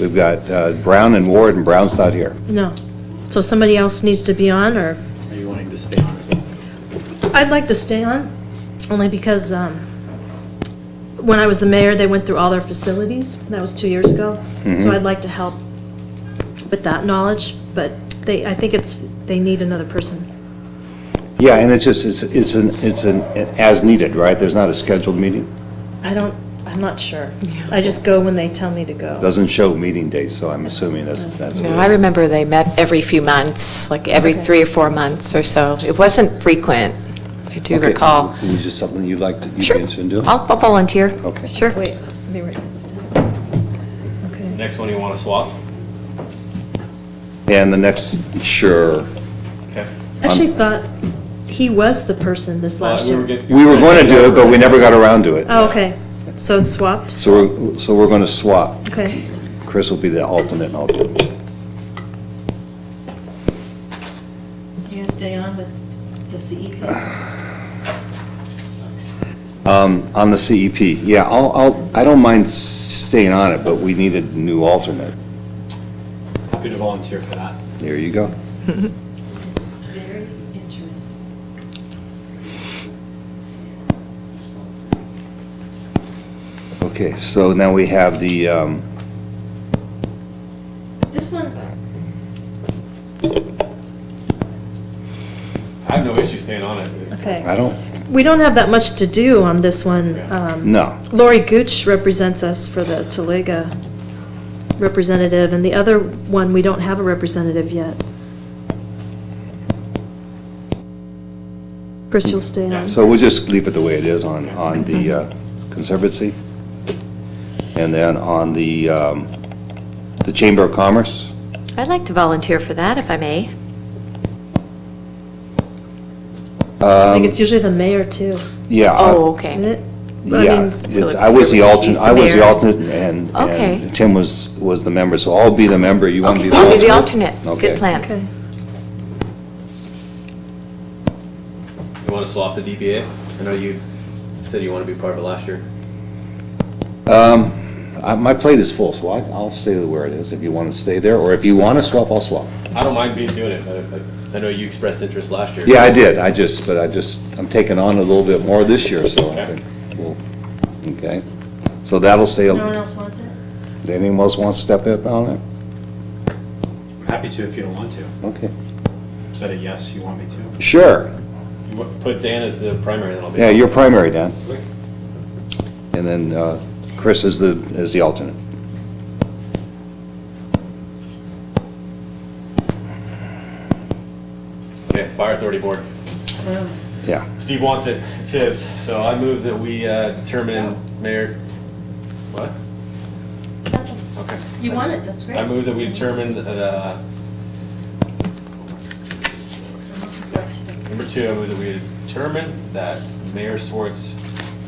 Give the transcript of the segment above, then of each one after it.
We've got uh, Brown and Ward, and Brown's not here. No. So somebody else needs to be on, or? Are you wanting to stay on as well? I'd like to stay on, only because um, when I was the mayor, they went through all their facilities. and That was two years ago. So I'd like to help with that knowledge, but they, I think it's, they need another person. Yeah, and it's just, it's, it's an, it's an, as needed, right? There's not a scheduled meeting. I don't, I'm not sure. I just go when they tell me to go. Doesn't show meeting days, so I'm assuming that's, that's. No, I remember they met every few months, like every three or four months or so. It wasn't frequent, I do Okay. recall. Is this something you'd like, to you'd be Sure. interested in doing? I'll I'll volunteer. Okay. Sure. Wait, let me write this down. Okay. Next one you want to swap? And the next, sure. Okay. Uh, I actually thought he was the person this last Uh, we were year. get- We were going to do it, but we never got around to it. Oh, okay. So it's swapped? So we're, so we're going to swap. Okay. Chris will be the alternate, and I'll do it. You gonna stay on with the CEP? On the CEP, yeah, I'll, I'll, I don't mind staying on it, but we need a new alternate. Happy to volunteer for that. There you go. It's very interesting. Okay, so now we have the, um, This one, I have no issue staying on it. It's- okay. I don't, We don't have that much to do on this one. Um, no. Lori Gooch represents us for the Toliga representative, and the other one, we don't have a representative yet. Chris, you'll stay on. So we'll just leave it the way it is on, on the uh, Conservancy. And then on the, um, the Chamber of Commerce, I'd like to volunteer for that, if I may. I think it's usually the mayor, too, yeah. I- Oh, isn't okay. it? I Yeah, mean- it's, So I was the it's- alternate, he's the I was the mayor. alternate, and, Okay. and Tim was, was the member, so I'll be the member, you want to Okay, be the I'll alternate? be the alternate. Okay. Good plan. Okay. You want to swap the DBA? I know you said you want to be part of it last year. Uh, My plate is full, so I- I'll stay where it is if you want to stay there, or if you want to swap, I'll swap. I don't mind being doing it, but I- I know you expressed interest last year. Yeah, I did, I just, but I just, I'm taking on a little bit more this year, so I think, we'll- okay? So that'll stay, No one else wants it? anyone else want to step up on it? I'm happy to if you don't want to. Okay. Said it yes, you want me to. Sure, You wa- Put Dan as the primary, then I'll be. yeah, you're primary, Dan, and then uh, Chris is the, is the alternate. Okay, Fire Authority Board. Yeah, Steve wants it. It's his. So I move that we uh, determine Mayor, what? Okay. You want it, that's great. I move that we determine that, uh, number two, I move that we determine that Mayor Swartz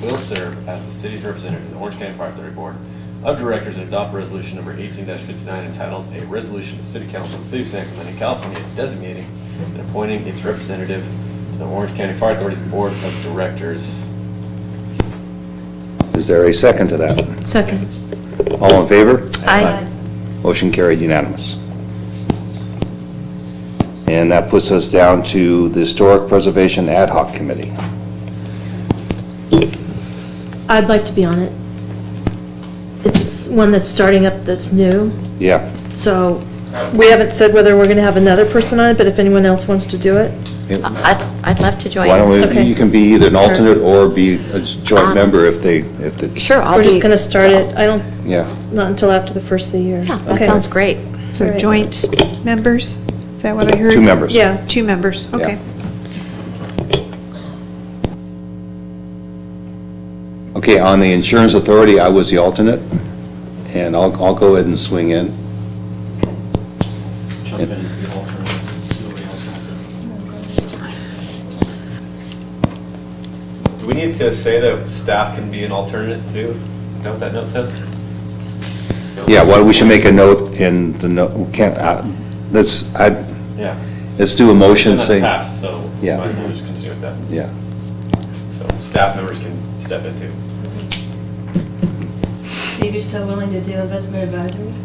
will serve as the city's representative in the Orange County Fire Authority Board of Directors and adopt resolution number eighteen fifty-nine entitled "A Resolution of the City Council of the City of San Clemente, California designating and appointing its representative to the Orange County Fire Authority's Board of Directors." is there a second to that? Second. All in favor? I, Motion carried unanimous. And that puts us down to the Historic Preservation Ad Hoc Committee. I'd like to be on it. It's one that's starting up that's new, Yeah, so we haven't said whether we're going to have another person on it, but if anyone else wants to do it. I'd I'd love to join. why don't we, Okay. you can be either an alternate or be a joint Um, member if they, if the, Sure, I'll We're be. just going to start it, I don't, yeah. not until after the first of the year. Yeah, that Okay. sounds great. All So right. joint members, is that what I heard? Two members. Yeah, Two members, okay. Okay, on the Insurance Authority, I was the alternate, and I'll, I'll go ahead and swing in. Jump in as the alternate. Nobody else wants it. Do we need to say that staff can be an alternate too? Is that what that note says? Yeah, well, we should make a note in the, no- can't, uh, let's, I, Yeah. let's do a motion It's been saying. passed, so might Yeah. as well just continue with that. Yeah. So staff members can step in too. Dave, you still willing to do investment advisory?